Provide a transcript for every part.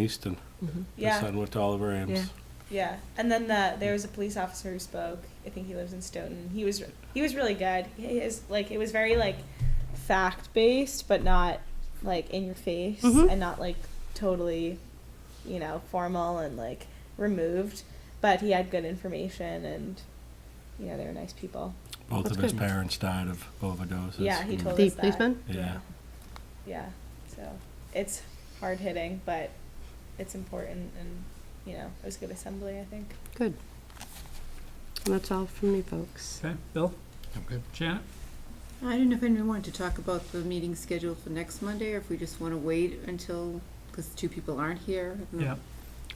Easton. My Yeah, son went to Oliver Yeah. Ames. yeah. And then the, there was a police officer who spoke. I think he lives in Stoughton. He was he was really good. His like it was very like fact based, but not like in your face Mhm. and not like totally, you know, formal and like removed. But he had good information, and you know they were nice people. Both That's of his good. parents died of overdoses. Yeah, he Mm. told The us that. policeman? Yeah. Yeah. So it's hard hitting, but it's important, and you know it was a good assembly. I think. Good. And that's all from me, folks. Okay, Bill? Janet? I don't know if anyone wanted to talk about the meeting schedule for next Monday, or if we just want to wait until, because two people aren't here. I don't know. Yeah,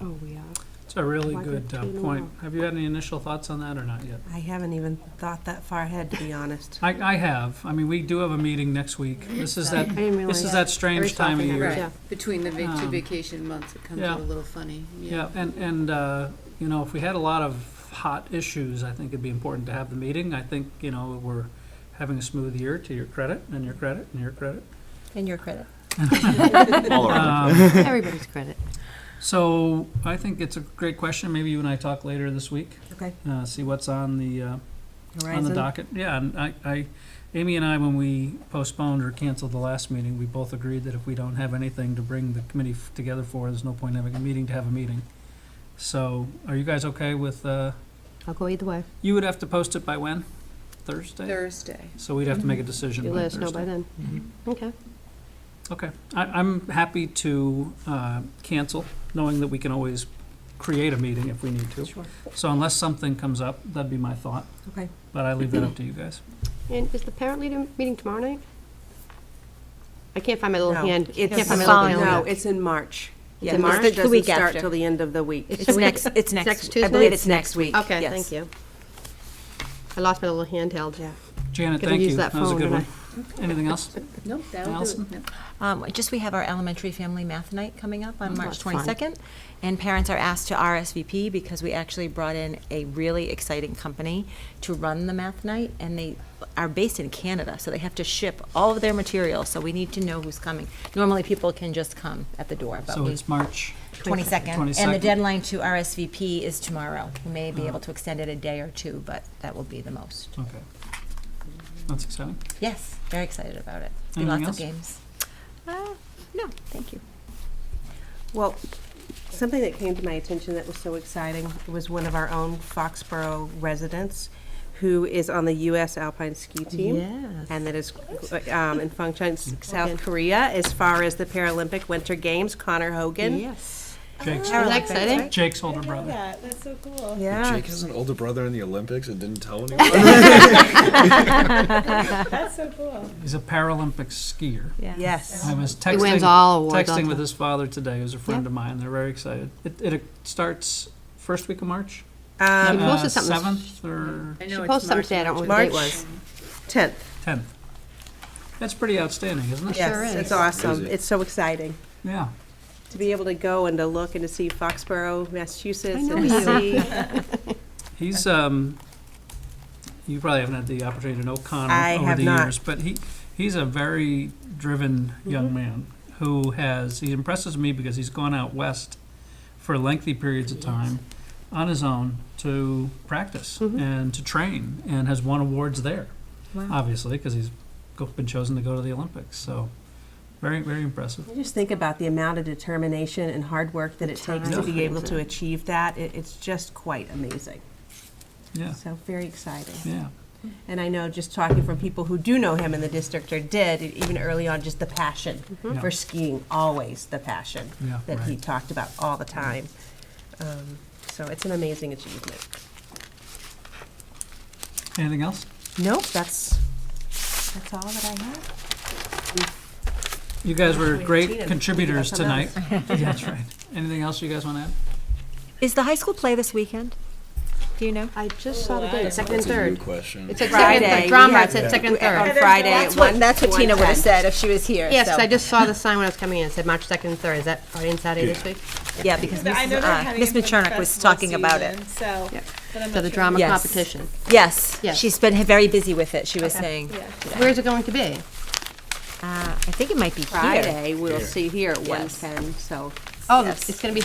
Oh, we are. it's a really Why good don't uh, you point. know? Have you had any initial thoughts on that or not yet? I haven't even thought that far ahead, to be honest. I, I have. I mean, we do have a meeting next week. This is that, I didn't realize. this is that strange Every time of softener, year. right. Yeah. Right, between the vac- two Um, vacation months, it comes yeah. out a little funny, Yeah, yeah. and, and, uh, you know, if we had a lot of hot issues, I think it'd be important to have the meeting. I think, you know, we're having a smooth year to your credit and your credit and your credit. In your credit. Um, Everybody's credit. So I think it's a great question. Maybe you and I talk later this week, Okay. uh, see what's on the, uh, on the Horizon. docket. Yeah, and I, I, Amy and I, when we postponed or canceled the last meeting, we both agreed that if we don't have anything to bring the committee f- together for, there's no point having a meeting to have a meeting. So are you guys okay with, uh, I'll go either way. you would have to post it by when? Thursday? Thursday. So we'd have to make a decision You by let us know by Thursday. then. Mm-hmm. Okay. Okay. I, I'm happy to, uh, cancel, knowing that we can always create a meeting if we need to. Sure. So unless something comes up, that'd be my thought, Okay. but I leave that up to you guys. And is the parent leader meeting tomorrow night? I can't find my little No, hand. it's can't find the my little following calendar. week. No, No, it's it's in March. Yeah, Yeah, the March? March It's the doesn't week start after. till the end of the week. It's It's next, it's next. next I believe Tuesday? it's next week. Okay, Yes. thank you. I lost my little handheld. Yeah. Janet, Gotta thank use you. that That was a phone, good one. don't Anything else? Nope, that'll do Allison? it. Yep. Um, Just, we have our elementary family math night coming up Oh, on March that's fun. 22nd, and parents are asked to RSVP because we actually brought in a really exciting company to run the math night, and they are based in Canada, so they have to ship all of their material, so we need to know who's coming. Normally, people can just come at the door, but So we, it's March. 22nd, and 22nd. the deadline to RSVP is tomorrow. We may Oh. be able to extend it a day or two, but that will be the most. Okay. That's exciting. Yes, very excited about it. It's be Anything lots else? of games. Uh, No, thank you. Well, something that came to my attention that was so exciting was one of our own Foxborough residents who is on the U.S. Alpine Ski Team. Yes. And that is um, in functions South Korea as far as the Paralympic Winter Games. Connor Hogan. Yes. Jake's, Isn't that exciting? Jake's older I know brother. that. That's so cool. Yeah. Jake has an older brother in the Olympics and didn't tell anyone. That's so cool. He's a Paralympic skier. Yeah. Yes. I was texting. He wins all awards. all Texting the with time. his father today, who's a friend Yeah. of mine. They're very excited. It, it starts first week of March? He Um, Uh, posted something. Seventh or I She know it's posted March, something, I don't know what the March. date was. 10th. tenth. That's pretty outstanding, isn't it? Sure Yes, is. it's awesome. Crazy. It's so exciting Yeah. to be able to go and to look and to see Foxborough, Massachusetts. I know and you. see- He's, um, you probably haven't had the opportunity to know I Connor over have the not. Mm-hmm. years, but he, he's a very driven young man who has, he impresses me because he's gone out west for lengthy periods of time on his own to practice Mm-hmm. and to train and has won awards there, obviously, because he's go- been chosen to go to the Olympics. So, very, very impressive. I Just think about the amount of determination and hard work that it takes to time. be able to achieve that. It, it's just quite amazing. Yeah. So very exciting. Yeah. And I know just talking from people who do know him in the district or did, e- even early on, just the passion Mm-hmm. Yeah. for skiing, always the passion Yeah, that he right. talked about all the time. Um, so it's an amazing achievement. Anything else? Nope, that's that's all that I have. You guys were Wait, Tina, we great got contributors something tonight. else. That's right. Anything else you guys want to add? Is the high school play this weekend? Do you know? I just saw the date, second and It's a new third. question. It's at second, Friday, third. we drama, had- it's at second, On third. Friday at one. have said if she was here. Yes, 'cause I just saw the sign when I was coming in, it said March second and third, is that Friday and Saturday this week? Yeah, because But I know Mrs. they're Uh, having Miss it for the Machernik was festival talking about it. season, So. Yep. but I'm So not the sure. drama Yes. competition. Yes, Yes. she's been very busy with it, she was saying. Yeah. Where's it going to be? Uh, I think it might be here. Friday, we'll see here at Yes. 1:10, so Oh, Yes. it's going to be